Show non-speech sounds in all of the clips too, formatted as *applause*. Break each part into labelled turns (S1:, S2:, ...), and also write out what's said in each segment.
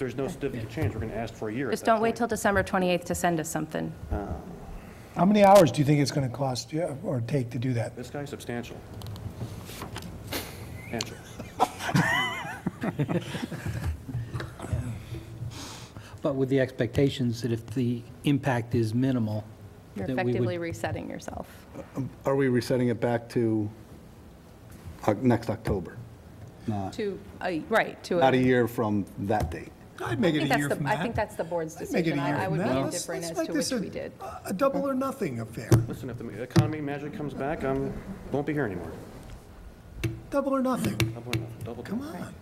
S1: there's no certificate of change, we're going to ask for a year. at
S2: Just
S1: that
S2: don't wait
S1: point.
S2: till December 28th to send us something.
S3: How many hours do you think it's going to cost you or take to do that?
S1: This guy's substantial. Substantial.
S4: But with the expectations that if the impact is minimal,
S2: You're
S4: that we
S2: effectively
S4: would,
S2: resetting yourself.
S5: Are we resetting it back to uh, next October?
S3: Uh,
S5: Not
S2: To, a- right, to.
S5: not a year from that date?
S6: I'd make
S2: I
S6: it
S2: think
S6: a year
S2: that's
S6: from
S2: the,
S6: that.
S2: I think that's the board's
S3: I'd make it a
S2: decision.
S3: year
S2: I I
S3: from
S2: would
S3: that.
S2: be
S3: Let's-
S2: indifferent
S3: let's
S2: as
S3: make
S2: to
S3: this
S2: which
S3: a-
S2: we did.
S3: A double or nothing affair.
S1: Listen, if the economy magically comes back, I'm, won't be here anymore.
S3: Double or nothing.
S1: Double or nothing, double.
S3: Come on.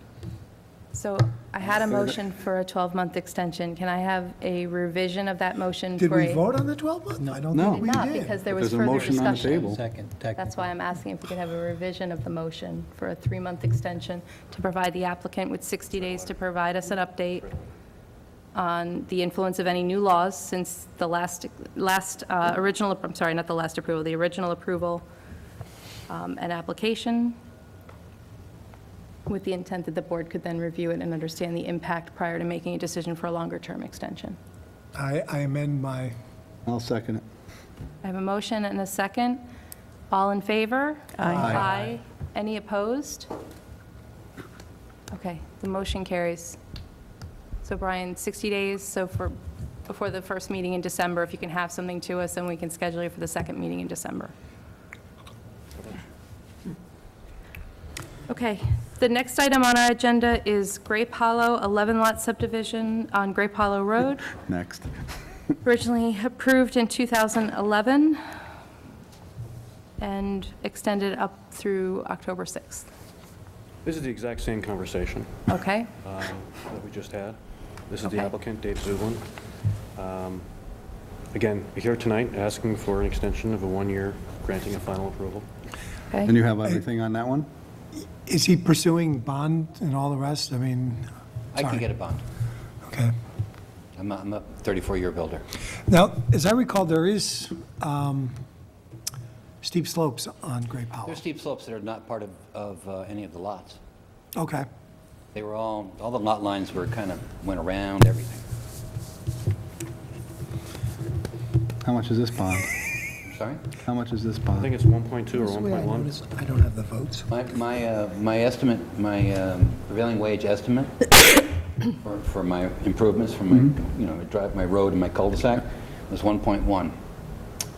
S2: So I had a motion for a 12-month extension. Can I have a revision of that motion for a?
S3: Did we vote on the 12 month? I don't
S5: No.
S3: think we
S2: Not,
S3: did.
S2: because there was
S5: There's a
S2: further
S5: motion on the
S2: discussion.
S5: table.
S4: second,
S2: That's
S4: technical.
S2: why I'm asking if we could have a revision of the motion for a three-month extension to provide the applicant with 60 days to provide us an update on the influence of any new laws since the last, last, uh, original, I'm sorry, not the last approval, the original approval um, and application, with the intent that the board could then review it and understand the impact prior to making a decision for a longer-term extension.
S3: I, I amend my,
S5: I'll second it.
S2: I have a motion and a second. All in favor? Aye. Any opposed? Okay, the motion carries. So Brian, 60 days, so for, before the first meeting in December, if you can have something to us, then we can schedule you for the second meeting in December. Okay, the next item on our agenda is Grape Hollow 11-lot subdivision on Grape Hollow Road
S5: Next.
S2: originally approved in 2011 and extended up through October 6th.
S1: This is the exact same conversation
S2: Okay?
S1: um, that we just had. This is the
S2: Okay.
S1: applicant, Dave Zublin. Um, Again, we're here tonight asking for an extension of a one-year, granting a final approval.
S5: And
S2: Okay.
S5: you have everything on that one?
S3: is he pursuing bond and all the rest? I mean,
S7: I can
S3: Sorry.
S7: get a bond.
S3: okay.
S7: I'm a, I'm a 34-year builder.
S3: Now, as I recall, there is um, steep slopes on Great Powell.
S7: There's steep slopes that are not part of, of uh, any of the lots.
S3: Okay.
S7: They were all, all the lot lines were kind of, went around everything.
S5: How much is this bond?
S7: I'm sorry?
S5: How much is this
S1: I
S5: bond?
S1: think it's 1.2 or
S3: This way I
S1: 1.1.
S3: notice I don't have the votes.
S7: My, my, uh, my estimate, my um, prevailing wage estimate *coughs* for, for my improvements, for my,
S5: Mm-hmm.
S7: you know, my drive, my road and my cul-de-sac was 1.1.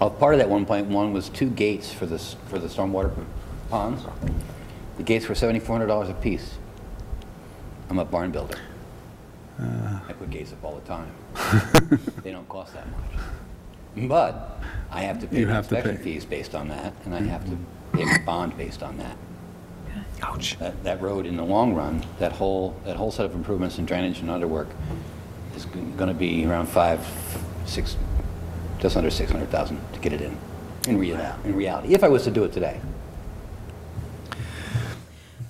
S7: Uh, Part of that 1.1 was two gates for this, for the stormwater ponds. The gates were $7,400 apiece. I'm a barn builder.
S5: Uh.
S7: I put gates up all
S5: *laughs*
S7: the time. They don't cost that much. But I have to pay
S5: You
S7: the
S5: have to
S7: inspection
S5: pay. Mm-hmm.
S7: fees based on that, and I have to pay my bond based on that. Ouch. That, that road, in the long run, that whole, that whole set of improvements in drainage and underwork is going to be around five, six, just under 600,000 to get it in, in real, in reality, if I was to do it today.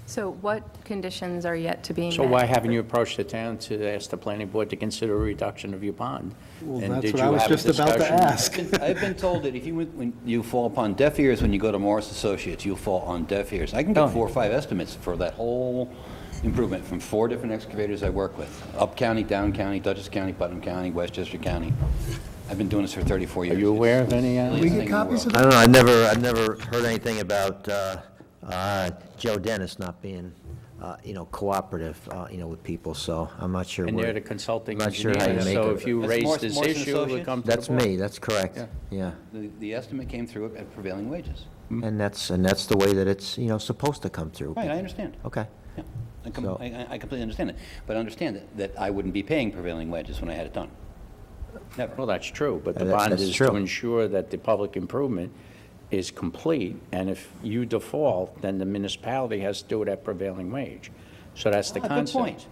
S2: So what conditions are yet to be met?
S8: So why haven't you approached the town to ask the planning board to consider a reduction of your bond?
S5: Well,
S8: And
S5: that's
S8: did
S5: what
S8: you
S5: I was
S8: have a
S5: just about to
S8: discussion?
S5: ask.
S7: I've been- I've been told that if you, went- when you fall upon deaf ears when you go to Morris Associates, you'll fall on deaf ears. I can get four or five estimates for that whole improvement from four different excavators I work with. Up county, down county, Dutchess County, Putnam County, Westchester County. I've been doing this for 34 years.
S8: Are you aware of any, uh,
S7: It's the
S3: We
S7: silliest thing
S3: get
S7: in the
S3: copies of
S7: world.
S3: that?
S9: I don't know, I've never, I've never heard anything about uh, uh, Joe Dennis not being, uh, you know, cooperative, uh, you know, with people, so I'm not sure
S8: and
S9: where...
S8: they're the consulting
S9: Not sure how you
S8: engineer,
S9: make
S8: so
S9: it.
S8: if you
S7: That's
S8: raise
S7: Morse-
S8: this
S7: Morse and
S8: issue, it would
S7: Associates?
S8: come to the
S9: That's me,
S8: board.
S9: that's correct,
S8: Yeah.
S9: yeah.
S7: The the estimate came through at prevailing wages.
S8: Mm-hmm.
S9: And that's, and that's the way that it's, you know, supposed to come through.
S7: Right, I understand.
S9: Okay.
S7: Yeah, I com-
S9: So-
S7: I I- I completely understand it. But understand that- that I wouldn't be paying prevailing wages when I had it done. Never.
S8: Well, that's true, but the
S9: Uh, that-
S8: bond
S9: that's
S8: is to
S9: true.
S8: ensure that the public improvement is complete, and if you default, then the municipality has to do it at prevailing wage. So that's the
S7: Ah, Good
S8: concept.
S7: point.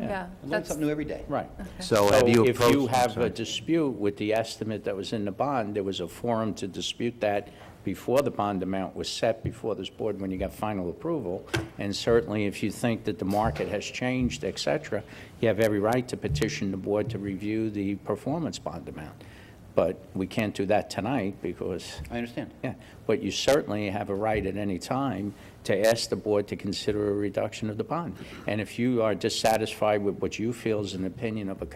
S2: Yeah,
S7: I learn
S2: that's,
S7: something new every day.
S8: Right.
S9: So have you
S8: if
S9: approached-
S8: you
S9: I'm
S8: have a
S9: sorry.
S8: dispute with the estimate that was in the bond, there was a forum to dispute that before the bond amount was set before this board when you got final approval. And certainly, if you think that the market has changed, et cetera, you have every right to petition the board to review the performance bond amount. But we can't do that tonight because,
S7: I understand.
S8: yeah, but you certainly have a right at any time to ask the board to consider a reduction of the bond. And if you are dissatisfied with what you feel is an opinion of a